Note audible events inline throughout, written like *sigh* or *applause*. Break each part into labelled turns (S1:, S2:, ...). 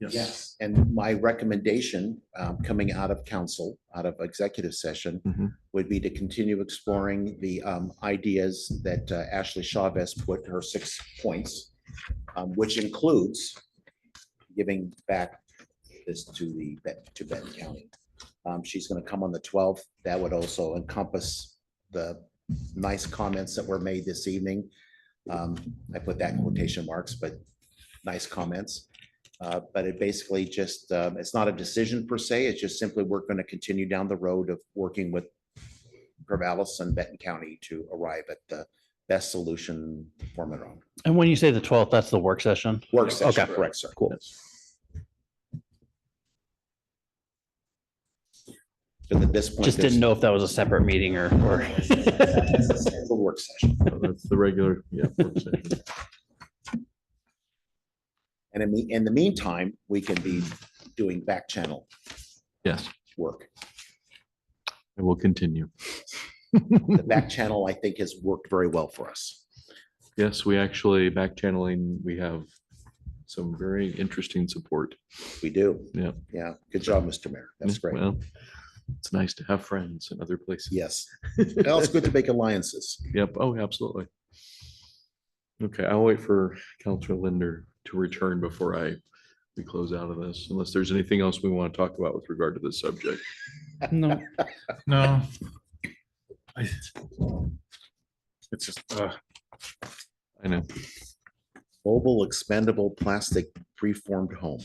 S1: Yes.
S2: And my recommendation um, coming out of council, out of executive
S3: Mhm.
S2: session, would be to continue exploring the um, ideas that uh, Ashley Chavez put her six points, um, which includes giving back this to the, Ben- to Benton County. Um, She's going to come on the 12th. That would also encompass the nice comments that were made this evening. Um, I put that in quotation marks, but nice comments. Uh, But it basically just, um, it's not a decision per se, it's just simply we're going to continue down the road of working with Corvallis and Benton County to arrive at the best solution for Monroe.
S4: And when you say the twelfth, that's the work session?
S2: Work session,
S4: Okay.
S2: correct, sir.
S4: Cool.
S2: Because at this point.
S4: Just didn't know if that was a separate meeting or,
S3: *laughs*
S4: or.
S2: there's a Work session,
S3: So That's the regular, yeah. work session.
S2: and in the, in the meantime, we can be doing back channel
S3: Yes,
S2: work.
S3: and we'll continue.
S2: The back channel, I think, has worked very well for us.
S3: Yes, we actually back channeling, we have some very interesting support.
S2: We do.
S3: Yeah.
S2: Yeah, good job, Mr. Mayor, that's great.
S3: Well, It's nice to have friends in other places. *laughs*
S2: Yes. Well, it's good to make alliances.
S3: Yep. Oh, absolutely. Okay, I'll wait for Counselor Linder to return before I, we close out of this, unless there's anything else we want to talk about with regard to this subject.
S4: No.
S1: No. I- It's just, uh,
S3: I know.
S2: Mobile expendable plastic preformed home.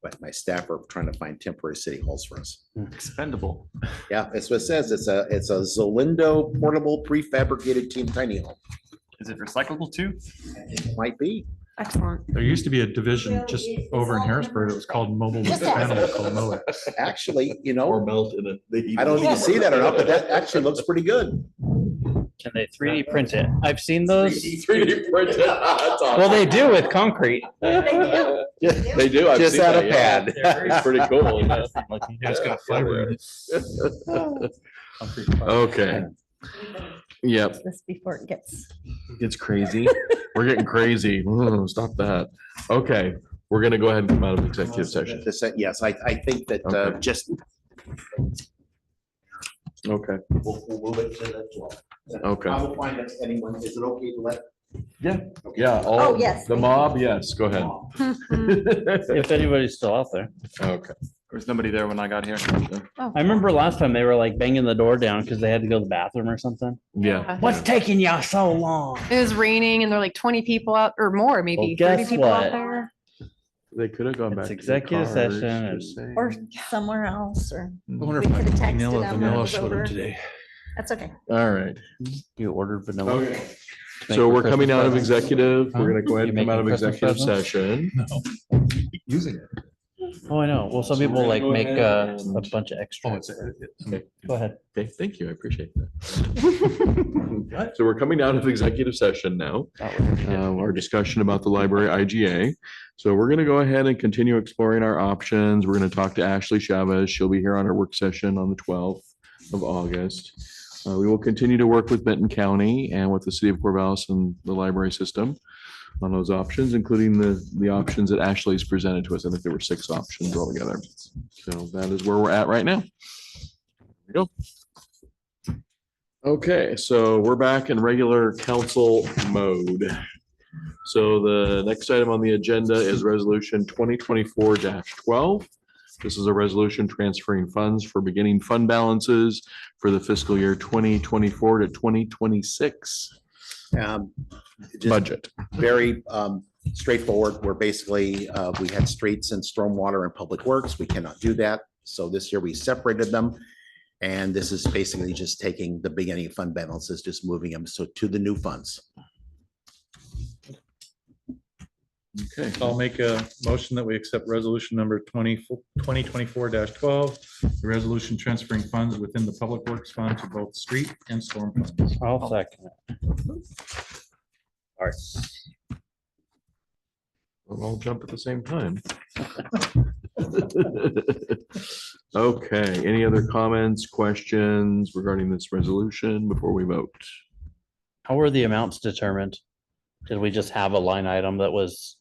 S2: But my staff are trying to find temporary city halls for us.
S3: Expendable.
S2: Yeah, that's what it says. It's a, it's a Zolindo portable prefabricated team tiny home.
S1: is it recyclable too?
S2: Might be.
S5: Excellent.
S6: There used to be a division just over in Harrisburg. It was called Mobile Expendable Mow.
S2: Actually, you
S3: Or
S2: know,
S3: melt in it.
S2: I don't even see that or not, but that actually looks pretty good.
S4: Can they three D print it? I've seen those.
S3: Three D printed. That's
S4: Well,
S3: awesome.
S4: they do with
S3: *laughs*
S4: concrete.
S3: They do. I've
S2: Just
S3: seen
S2: out
S3: that,
S2: of
S3: yeah.
S2: pad.
S3: It's pretty cool.
S6: *laughs*
S3: yeah.
S6: Yeah, it's got fiber in it.
S3: *laughs* Okay. Yep.
S5: This before it gets.
S3: It's crazy. We're getting crazy. Mm, Stop that. Okay, we're gonna go ahead and come out of executive session.
S2: This- Yes, I, I think that uh,
S3: Okay.
S2: just.
S3: Okay,
S2: We'll we'll move it to the 12th.
S3: okay.
S2: I will find out anyone, is it okay to let?
S3: Yeah, yeah. all
S5: Oh,
S3: of
S5: yes,
S3: The
S5: thank you.
S3: mob, yes, go ahead. Mm-hmm.
S4: *laughs* If anybody's still out there.
S3: *laughs* Okay.
S1: There was nobody there when I got here.
S4: I remember last time they were like banging the door down because they had to go to the bathroom or something.
S3: Yeah.
S4: What's taking y'all so long?
S5: It was raining and there were like twenty people out or more, maybe
S4: Well,
S5: thirty
S4: guess
S5: people
S4: what?
S5: out there.
S3: They could have gone back.
S4: It's
S3: to the
S4: executive
S3: cars,
S4: session
S3: just saying.
S5: Or somewhere else or,
S6: I wonder
S5: We
S6: if my
S5: could've texted
S6: vanilla,
S5: them when it
S6: vanilla
S5: was
S6: showed
S5: over.
S6: up today.
S5: that's okay.
S3: All right.
S4: You ordered vanilla. Thank
S3: So
S4: you
S3: we're
S4: for
S3: coming
S4: Christmas
S3: out of
S4: presents.
S3: executive,
S4: Huh?
S3: we're gonna go ahead and
S4: You
S3: come out of
S4: making Christmas
S3: executive
S4: presents? *laughs*
S3: session.
S6: Using it.
S4: Oh, I know. Well, some
S3: So we're
S4: people
S3: gonna
S4: like
S3: go
S4: make
S3: ahead
S4: uh,
S3: and-
S4: a bunch of
S6: Oh,
S4: extra.
S6: it's, it's-
S4: Go ahead.
S3: Okay, thank you, I appreciate
S4: *laughs*
S3: that. So we're coming out of executive session now, um, our discussion about the library IGA. So we're gonna go ahead and continue exploring our options. We're gonna talk to Ashley Chavez. She'll be here on our work session on the twelfth of August. Uh, we will continue to work with Benton County and with the city of Corvallis and the library system on those options, including the, the options that Ashley's presented to us. I think there were six options altogether. So that is where we're at right now. There you go. Okay, so we're back in regular council mode. So the next item on the agenda is resolution twenty twenty-four twelve. This is a resolution transferring funds for beginning fund balances for the fiscal year twenty twenty-four to twenty twenty-six
S2: um, just-
S3: budget.
S2: very um, straightforward. We're basically, uh, we had streets and stormwater and public works. We cannot do that. So this year we separated them. And this is basically just taking the beginning fund balances, just moving them. So to the new funds.
S3: Okay,
S6: I'll make a motion that we accept resolution number 20 2024 twelve. The resolution transferring funds within the Public Works Fund to both street and storm funds.
S4: I'll second it. All right.
S3: we'll all jump at the same time. *laughs* Okay, any other comments, questions regarding this resolution before we vote?
S4: How were the amounts determined? Did we just have a line item that was